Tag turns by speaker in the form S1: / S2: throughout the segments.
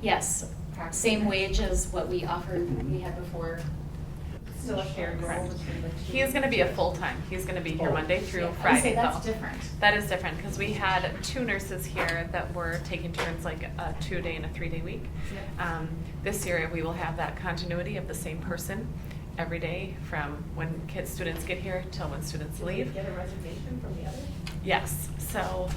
S1: Yes, same wage as what we offered, we had before.
S2: Still a fair goal
S3: Correct.
S2: between the two.
S3: He is gonna be a full-time, he's gonna be here
S4: Oh.
S3: Monday through
S2: Yeah, I would
S3: Friday
S2: say that's
S3: though.
S2: different.
S3: That is different, because we had two nurses here that were taking turns like a two-day and a three-day week.
S2: Yep.
S3: Um, This year, we will have that continuity of the same person every day from when kids, students get here till when students
S2: Did we
S3: leave.
S2: Get a reservation from the other?
S3: Yes, so,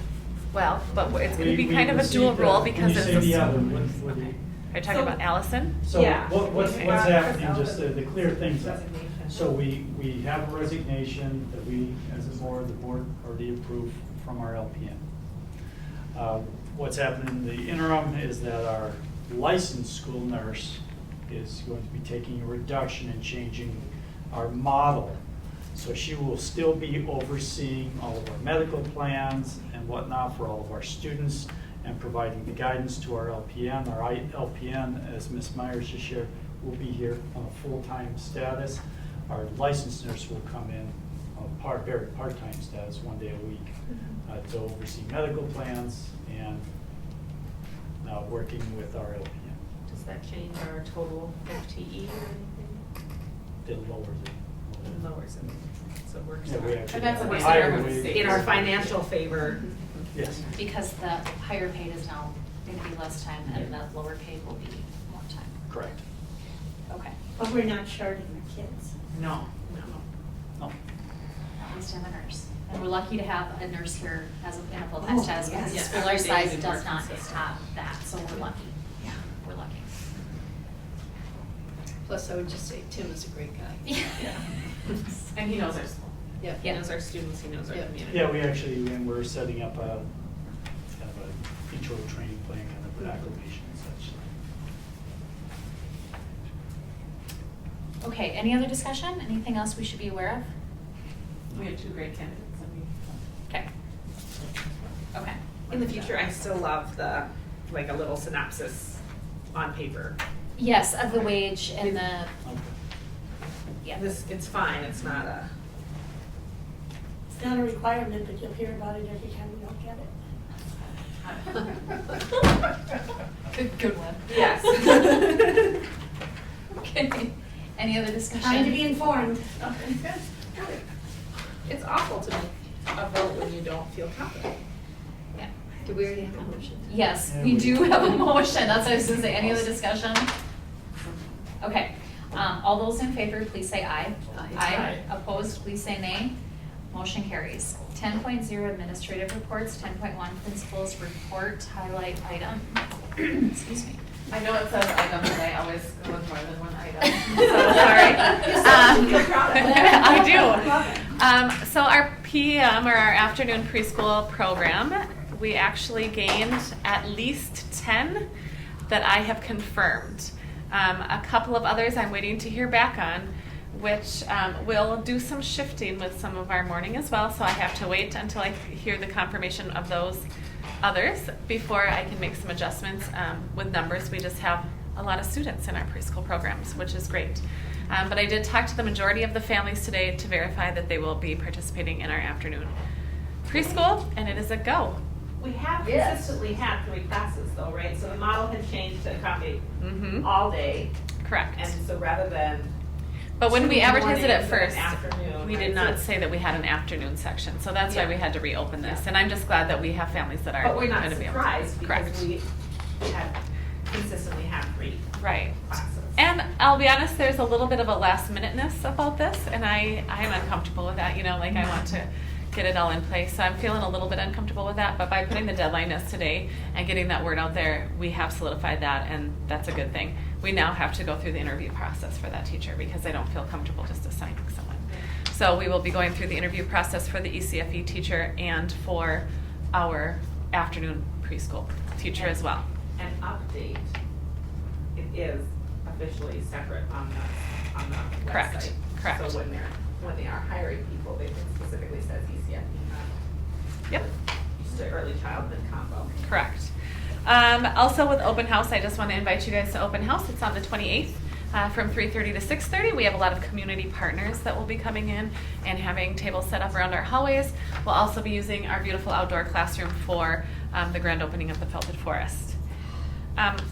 S3: well, but it's gonna
S4: We-
S3: be
S4: we
S3: kind of a
S4: received
S3: dual
S4: that.
S3: role
S4: When
S3: because
S4: you
S3: it's.
S4: say
S3: a
S4: the
S3: s-
S4: other, what- what do you-
S3: Okay. Are you talking
S2: So-
S3: about Allison?
S4: So
S2: Yeah.
S4: what, what's,
S3: Okay.
S4: what's happening,
S2: Without
S4: just to, to clear things up.
S2: resignation.
S4: So we, we have a resignation that we, as a board, the board already approved from our LPN. Uh, What's happening in the interim is that our licensed school nurse is going to be taking a reduction and changing our model. So she will still be overseeing all of our medical plans and whatnot for all of our students and providing the guidance to our LPN. Our I- LPN, as Ms. Myers just shared, will be here on a full-time status. Our licensed nurse will come in on a part, very part-time status, one day a week, uh, to oversee medical plans and uh, working with our LPN.
S2: Does that change our total FTE or
S4: It lowers it.
S2: anything? Lowers it, so it works
S4: Yeah, we
S2: out.
S4: actually
S5: But that's what we're
S4: higher
S5: saying.
S4: wage.
S5: In our financial favor.
S4: Yes.
S1: Because the higher paid is now, going to be less time and the lower paid will be more time.
S4: Correct.
S1: Okay,
S6: But we're not shorting the kids.
S5: No, no.
S4: No.
S1: at least I'm a nurse. And we're lucky to have a nurse here as a, in a full-time
S6: Oh,
S1: status because the
S5: yes.
S1: school our
S5: Every day
S1: size
S5: is
S1: does
S5: more
S1: not
S5: consistent.
S1: have that, so we're lucky. Yeah. We're lucky.
S7: Plus, I would just say Tim is a great guy.
S1: Yeah.
S5: And he knows our school.
S7: Yeah.
S5: He knows our students, he knows our
S7: Yeah.
S5: community.
S4: Yeah, we actually, and we're setting up a, kind of a intro training plan, kind of an acclimation and such.
S1: Okay, any other discussion? Anything else we should be aware of?
S5: We have two great candidates and we.
S1: Okay. Okay.
S5: In the future, I still love the, like a little synopsis on paper.
S1: Yes, of the wage and the, yeah.
S5: This, it's fine, it's not a.
S6: It's not a requirement, but you'll hear about it every time you don't get it.
S1: Good, good one.
S5: Yes.
S1: Okay, any other discussion?
S6: Trying to be informed.
S5: It's awful to make a vote when you don't feel confident.
S1: Yeah.
S7: Do we already have a motion?
S1: Yes,
S4: Yeah,
S1: we
S4: we-
S1: do have a motion, that's what I was gonna say, any other discussion? Okay, um, all those in favor, please say aye.
S7: Aye.
S1: Opposed, please say nay. Motion carries. Ten point zero administrative reports, ten point one principals report highlight item. Excuse me.
S2: I know it says item, but I always go with more than one item.
S3: So sorry. Um,
S2: You're proud of that.
S3: I
S2: Love
S3: do.
S2: it.
S3: Um, so our PM or our afternoon preschool program, we actually gained at least ten that I have confirmed. Um, a couple of others I'm waiting to hear back on, which um, will do some shifting with some of our morning as well. So I have to wait until I hear the confirmation of those others before I can make some adjustments um, with numbers. We just have a lot of students in our preschool programs, which is great. Um, but I did talk to the majority of the families today to verify that they will be participating in our afternoon preschool, and it is a go.
S5: We have consistently had three classes though, right? So the model had changed to accommodate
S3: Mm-hmm.
S5: all day.
S3: Correct.
S5: And so rather than.
S3: But when we
S5: two
S3: advertised it at
S5: mornings and an
S3: first,
S5: Afternoon.
S3: we
S5: right?
S3: did not
S5: So-
S3: say that we had an afternoon section, so that's why
S5: Yeah.
S3: we had to reopen this.
S5: Yeah.
S3: And I'm just glad that we have families that are
S5: But we're
S3: going to
S5: not
S3: be able. to-
S5: surprised
S3: Correct.
S5: because we have consistently had three
S3: Right.
S5: classes.
S3: And I'll be honest, there's a little bit of a last minuteness about this, and I, I'm uncomfortable with that, you know, like I want to get it all in place, so I'm feeling a little bit uncomfortable with that, but by putting the deadline as today and getting that word out there, we have solidified that, and that's a good thing. We now have to go through the interview process for that teacher, because I don't feel comfortable just assigning someone. So we will be going through the interview process for the E ECFE teacher and for our afternoon preschool teacher as well.
S5: An update, it is officially separate on the, on the website.
S3: Correct, correct.
S5: So when they're, when they are hiring people, they it specifically says ECF,
S3: Yep.
S5: E, just the early childhood combo.
S3: Correct. Um, also with open house, I just want to invite you guys to open house. It's on the 28th uh, from 3:30 to 6:30. We have a lot of community partners that will be coming in and having tables set up around our hallways. We'll also be using our beautiful outdoor classroom for um, the grand opening of the Felted Forest. Um,